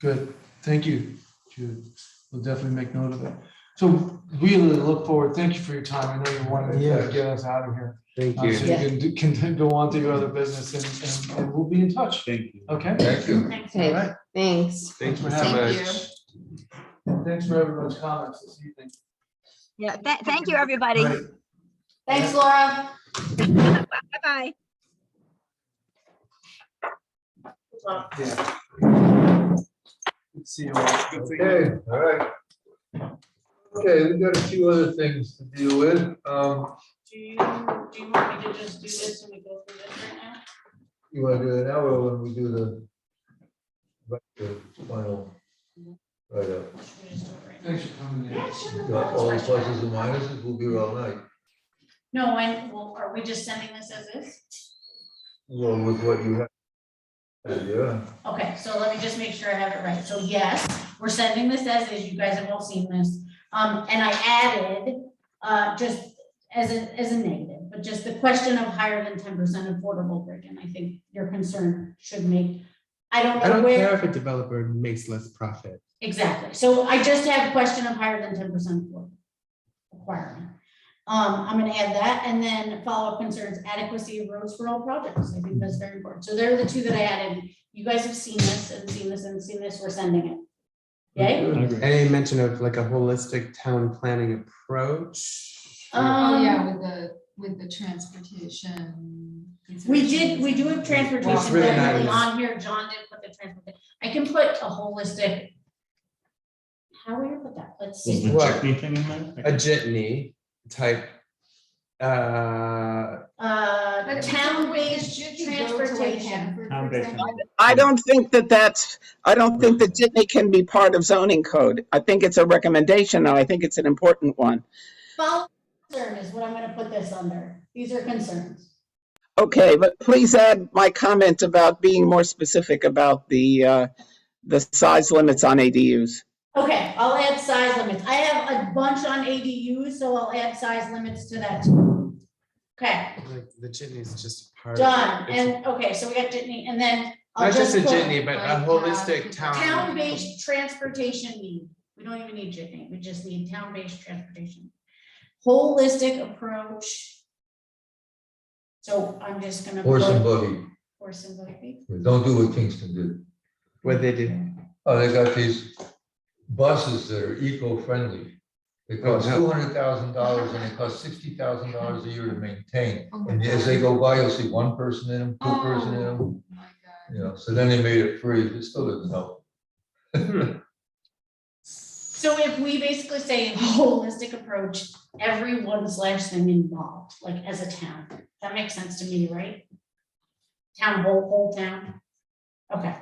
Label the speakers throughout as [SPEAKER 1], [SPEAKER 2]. [SPEAKER 1] Good, thank you, Jude. We'll definitely make note of it. So really look forward, thank you for your time. I know you wanted to
[SPEAKER 2] Yeah.
[SPEAKER 1] get us out of here.
[SPEAKER 2] Thank
[SPEAKER 1] uh, So
[SPEAKER 2] you.
[SPEAKER 1] you can do- can go on to your other business and- and, and we'll be in touch.
[SPEAKER 3] Thank you.
[SPEAKER 1] Okay?
[SPEAKER 4] Thank you.
[SPEAKER 1] All
[SPEAKER 5] Okay,
[SPEAKER 1] right.
[SPEAKER 5] thanks.
[SPEAKER 2] Thank you so
[SPEAKER 1] Thank
[SPEAKER 2] much.
[SPEAKER 1] Thanks for everyone's comments this evening.
[SPEAKER 6] Yeah, tha- thank you, everybody.
[SPEAKER 1] Right.
[SPEAKER 4] Thanks, Laura.
[SPEAKER 6] Bye-bye.
[SPEAKER 1] Yeah. Good to See you all.
[SPEAKER 4] Okay, all right. Okay, we've got a few other things to deal with. Um,
[SPEAKER 7] Do you, do you want me to just do this and we go through this right now?
[SPEAKER 4] you wanna do it now or when we do the right, the final? Right up,
[SPEAKER 7] Should we just do it right now?
[SPEAKER 1] Thanks for coming in.
[SPEAKER 4] You got all the pluses and minuses, we'll be here all night.
[SPEAKER 7] No, and, well, are we just sending this as is?
[SPEAKER 4] Well, with what you have. Yeah,
[SPEAKER 7] Okay, so let me just make sure I have it right. So yes, we're sending this as is. You guys have all seen this. Um, and I added, uh, just as a, as a negative, but just the question of higher than ten percent affordable brick, and I think your concern should make, I don't
[SPEAKER 2] I
[SPEAKER 7] know
[SPEAKER 2] don't
[SPEAKER 7] where.
[SPEAKER 2] care if a developer makes less profit.
[SPEAKER 7] Exactly. So I just have a question of higher than ten percent requirement. Um, I'm gonna add that and then follow-up concerns adequacy of roads for all projects. I think that's very important. So they're the two that I added. You guys have seen this and seen this and seen this. We're sending it. Um, Yay?
[SPEAKER 2] Any mention of like a holistic town planning approach?
[SPEAKER 8] Oh,
[SPEAKER 7] Um,
[SPEAKER 8] yeah, with the, with the transportation.
[SPEAKER 7] we did, we do have
[SPEAKER 2] It's
[SPEAKER 7] transportation
[SPEAKER 2] really
[SPEAKER 7] definitely
[SPEAKER 2] nice.
[SPEAKER 7] on here. John did put the transportation. I can put a holistic. How are we gonna put that? Let's
[SPEAKER 3] Was
[SPEAKER 7] see.
[SPEAKER 3] the
[SPEAKER 2] What?
[SPEAKER 3] chutney thing in
[SPEAKER 2] A
[SPEAKER 3] there?
[SPEAKER 2] jitney type. Uh,
[SPEAKER 7] Uh,
[SPEAKER 8] But
[SPEAKER 7] town-based
[SPEAKER 8] should you go to like
[SPEAKER 7] transportation.
[SPEAKER 8] Hanford, for
[SPEAKER 3] Town-based.
[SPEAKER 8] example?
[SPEAKER 9] I don't think that that's, I don't think that Jitney can be part of zoning code. I think it's a recommendation, and I think it's an important one.
[SPEAKER 7] Follow concern is what I'm gonna put this under. These are concerns.
[SPEAKER 9] Okay, but please add my comment about being more specific about the, uh, the size limits on ADUs.
[SPEAKER 7] Okay, I'll add size limits. I have a bunch on ADUs, so I'll add size limits to that. too. Okay,
[SPEAKER 2] like the jitney is just a part. of it.
[SPEAKER 7] done.
[SPEAKER 2] It's-
[SPEAKER 7] And, okay, so we got Jitney, and then I'll
[SPEAKER 2] Not just
[SPEAKER 7] just
[SPEAKER 2] a
[SPEAKER 7] put
[SPEAKER 2] jitney, but a holistic
[SPEAKER 8] Like,
[SPEAKER 2] town.
[SPEAKER 8] uh,
[SPEAKER 7] town-based transportation need. We don't even need Jitney, we just need town-based transportation. Holistic approach. So I'm just gonna.
[SPEAKER 4] horse and
[SPEAKER 7] put-
[SPEAKER 4] buggy,
[SPEAKER 7] Horse and buggy.
[SPEAKER 4] don't do what Kingston did.
[SPEAKER 2] What they do.
[SPEAKER 4] Oh, they got these buses that are eco-friendly. They
[SPEAKER 7] Oh,
[SPEAKER 4] cost
[SPEAKER 2] no.
[SPEAKER 4] two hundred thousand dollars and it costs sixty thousand dollars a year to maintain.
[SPEAKER 8] Oh my
[SPEAKER 4] And as
[SPEAKER 8] God.
[SPEAKER 4] they go by, you'll see one person in them, two person in them,
[SPEAKER 8] Oh my God.
[SPEAKER 4] you know, so then they made it free, it still didn't help.
[SPEAKER 7] So if we basically say a holistic approach, everyone slash thing involved, like as a town, that makes sense to me, right? Town, whole, whole town. Okay,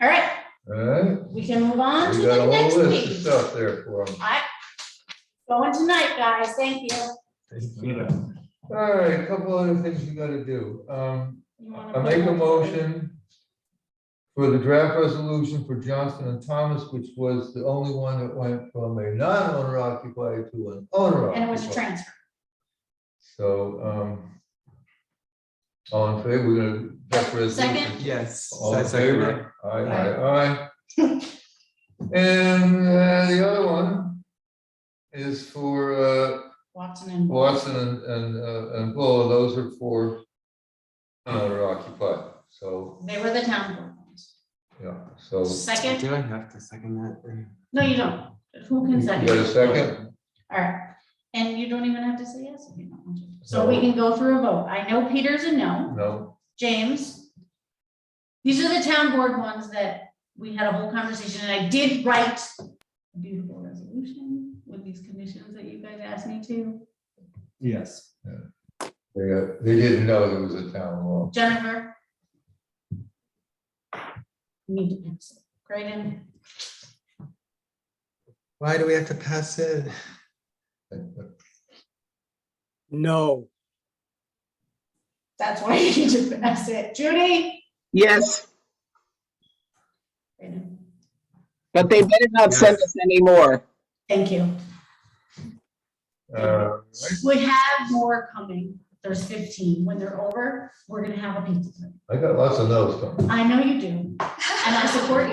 [SPEAKER 7] all right,
[SPEAKER 4] Alright,
[SPEAKER 7] we can move on to
[SPEAKER 4] we got a
[SPEAKER 7] the next
[SPEAKER 4] whole list of
[SPEAKER 7] page.
[SPEAKER 4] stuff there for them.
[SPEAKER 7] I, going tonight, guys, thank you.
[SPEAKER 4] Alright, a couple other things we gotta do. Um,
[SPEAKER 7] You wanna
[SPEAKER 4] I make a
[SPEAKER 7] put-
[SPEAKER 4] motion for the draft resolution for Johnson and Thomas, which was the only one that went from a non-owner occupied to an owner occupied.
[SPEAKER 7] And it was a transfer,
[SPEAKER 4] So, um, all in favor, we're gonna. that's resolution.
[SPEAKER 7] Second.
[SPEAKER 2] Yes.
[SPEAKER 4] All in
[SPEAKER 2] I second that.
[SPEAKER 4] favor? Aye, aye, aye. And uh, the other one is for, uh,
[SPEAKER 7] Watson and.
[SPEAKER 4] Watson and, and, uh, and Bull, those are for owner occupied, so,
[SPEAKER 7] They were the town board ones.
[SPEAKER 4] yeah, so.
[SPEAKER 7] Second,
[SPEAKER 2] Do I have to second that?
[SPEAKER 7] no, you don't, who
[SPEAKER 4] You
[SPEAKER 7] can
[SPEAKER 4] got
[SPEAKER 7] second?
[SPEAKER 4] a second?
[SPEAKER 7] All right, and you don't even have to say yes if you don't want to. So we can go through a vote. I know Peter's a no.
[SPEAKER 4] No,
[SPEAKER 7] James? These are the town board ones that we had a whole conversation, and I did write a beautiful resolution with these conditions that you guys asked me to.
[SPEAKER 3] Yes.
[SPEAKER 4] they, uh, they didn't know there was a town law.
[SPEAKER 7] Jennifer? You Need to pass it. Graydon?
[SPEAKER 2] Why do we have to pass it? No.
[SPEAKER 7] That's why you need to pass it. Judy?
[SPEAKER 9] Yes,
[SPEAKER 7] Graydon.
[SPEAKER 9] but they better not send us any more.
[SPEAKER 7] Thank you.
[SPEAKER 4] Uh,
[SPEAKER 7] We have more coming. There's fifteen. When they're over, we're gonna have a pizza. party.
[SPEAKER 4] I got lots of notes, do
[SPEAKER 7] I know you do, and I support you.